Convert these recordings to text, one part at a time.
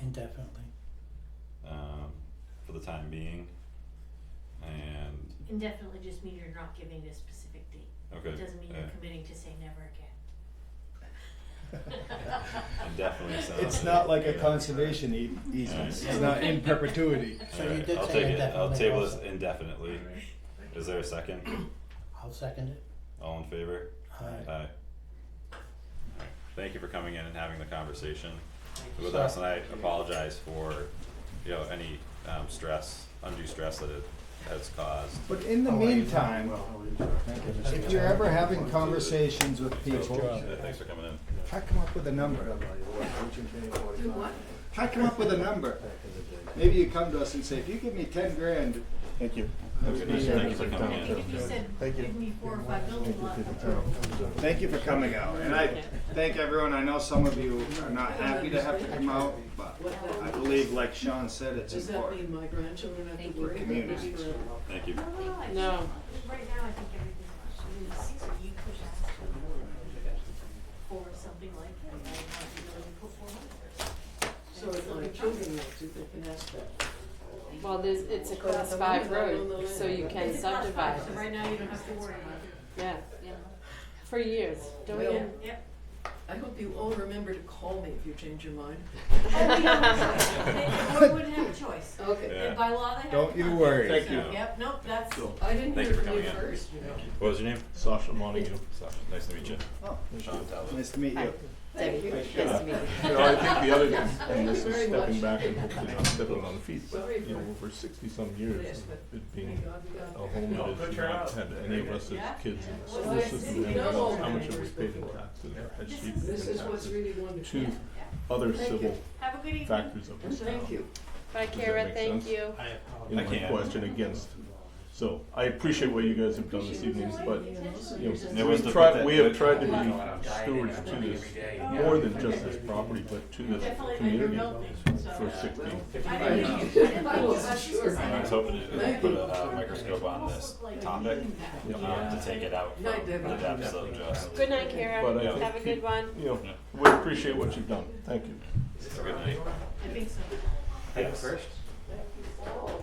indefinitely. um, for the time being. And, Indefinitely just mean you're not giving a specific date. It okay, Uh, doesn't mean yeah. you're committing to say never again. Indefinitely sounds. It's not like a yeah. conservation ea- easement, it's not in perpetuity. So you Alright, did I'll say take it. I'll indefinitely table this also. indefinitely. Is there a second? I'll second it. All in favor? Aye. Aye. Thank you for coming in and having the conversation you. with us, and I apologize for, you know, any, um, stress, undue stress that it has caused. But in Oh, the meantime, if you're ever having conversations with people, Yeah, Thanks for coming in. try to come up with a number. Try to come up with a number. Maybe you come to us and say, if you give me ten grand. Thank you. Thank you for coming I in. think if you said, Thank you. give me four or five building lots, Thank you for coming out, and I thank everyone, I know some of you are not happy to have to come out, but I believe, like Sean said, it's Does that mean important. my grandchildren have Thank to you. work in this Communities. forever? Thank you. no, no, I think, No. right now, I think everything's fine. You push us for something like that, I would not be willing to put forward. So if my children want to, they can ask that. Well, there's, it's a class five road, so you can It's not subdivide, So right now, you don't have to worry about it. yeah, for years, don't we? Well- Yep. I hope you all remember to call me if you change your mind. Oh, we don't have a choice. They- we wouldn't have a choice. Okay. Yeah. And by law, they have. Don't to you come. worry. Thank So, you. Yep, nope, that's, I didn't Thank hear you for from you coming in. first, you know. What was your name? Sasha Montague. Sasha. Nice to meet you. Oh, Sean Talbot. Nice to meet you. Debbie, nice to meet you. You know, I think the other thing, Thank and you this is very stepping much. back and hopefully not stepping on the feet, Sorry but, you know, for- over sixty some years, Yes, but- it Thank being God we a got- Oh, home No, that good has turnout. not had any of us Yeah. as kids in the Well, school system, I and see. No. how much have we paid in taxes, or has she paid This in is what's taxes really to wonderful. yeah. other Thank you. civil Have a good evening. factors of this town? Thank you. Bye, that Kara, make thank sense? you. I in my I apologize. can't. question against. So I appreciate what you guys have done this evening, but you know, There was we the- tried, we have the- tried to Yeah. be stewards to this, more than just this property, but to this Definitely, and you're community building, so. for sixty. I didn't I think you did, but I I was wasn't just sure. I saying. was hoping to put a uh, microscope on this topic, um, to take it out from Night, the Debbie. depths of just. Good night, But Kara, I have a think good one. You know, we appreciate what you've done. Thank you. Good night. I think so. Yes.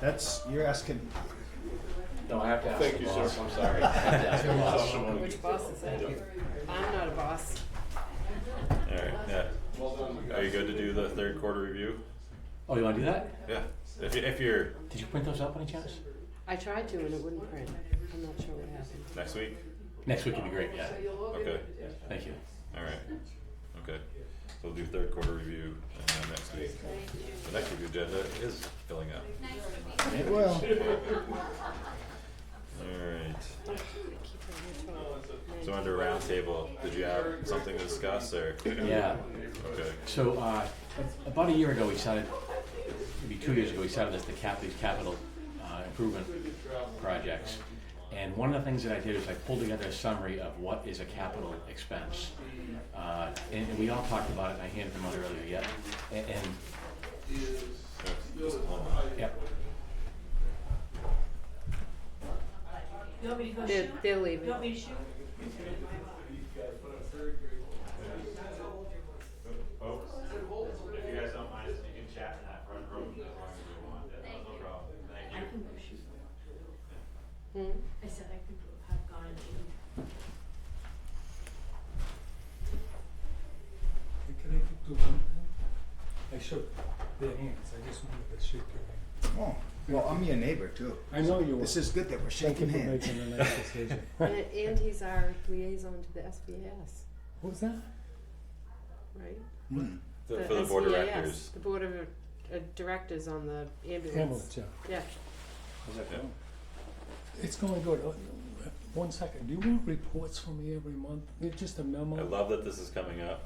That's, you're asking, No, I have to ask. Thank the you, boss, sir. I'm sorry. I have to ask the boss. Which boss is that? I'm not a boss. Alright, yeah. Are you good to do the third quarter review? Oh, you wanna do that? Yeah. If, you- if you're Did you print those up any chance? I tried to and it wouldn't print. I'm not sure what happened. next week, Next week would be great, yeah. okay, Thank you. alright, okay. So we'll do third quarter review and then next week. The next week's agenda is filling up. well, Alright, I keep it in the so drawer. under roundtable, did you have something to discuss or? Yeah. Okay, So, uh, a- about a year ago, we started, maybe two years ago, we started this, the cap, these capital, uh, improvement projects. And one of the things that I did is I pulled together a summary of what is a capital expense. Uh, and, and we all talked about it, and I handed them out earlier, yeah, and, and, just hold on. yep, You want me to go They're, shoot? they're You leaving. want me to shoot? Folks, if you guys don't mind, you can chat in that front room as long as you want, that's no problem, I thank can go shoot. Hmm? I said I could go- have gone and shoot. I connected to one hand. I shook their hands. I just wanted to shake your hand. oh, well, I'm your neighbor too. I know you This is good that we're shaking hands. a nice decision. And, and he's our liaison to the SBAS, What was that? right? Hmm. you. For the board of SBAS, directors, The board of uh, directors on the Ambulance, ambulance, yeah. yeah. How's that going? It's going good. Oh, uh, One second. Do you want reports from me every month? It's just a memo. I love that this is coming up.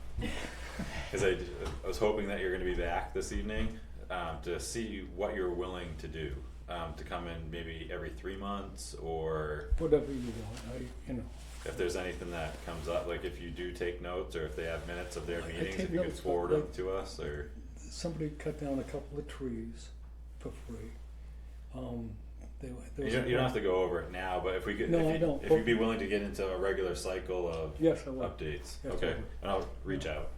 Cause I, d- I was hoping that you're gonna be back this evening, um, to see what you're willing to do. Um, to come in maybe every three months, or Whatever you want. I, you know. if there's anything that comes up, like if you do take notes, or if they have minutes of their I meetings, take if you could notes, but forward them like- to us, or, Somebody cut down a couple of trees for free. Um, they, were- there you was don't, a- you don't have to go over it now, but if we could, No, I if you, don't, if but- you'd be willing to get into a regular cycle of Yes, I will. updates, Yes, I okay, will. and I'll reach out.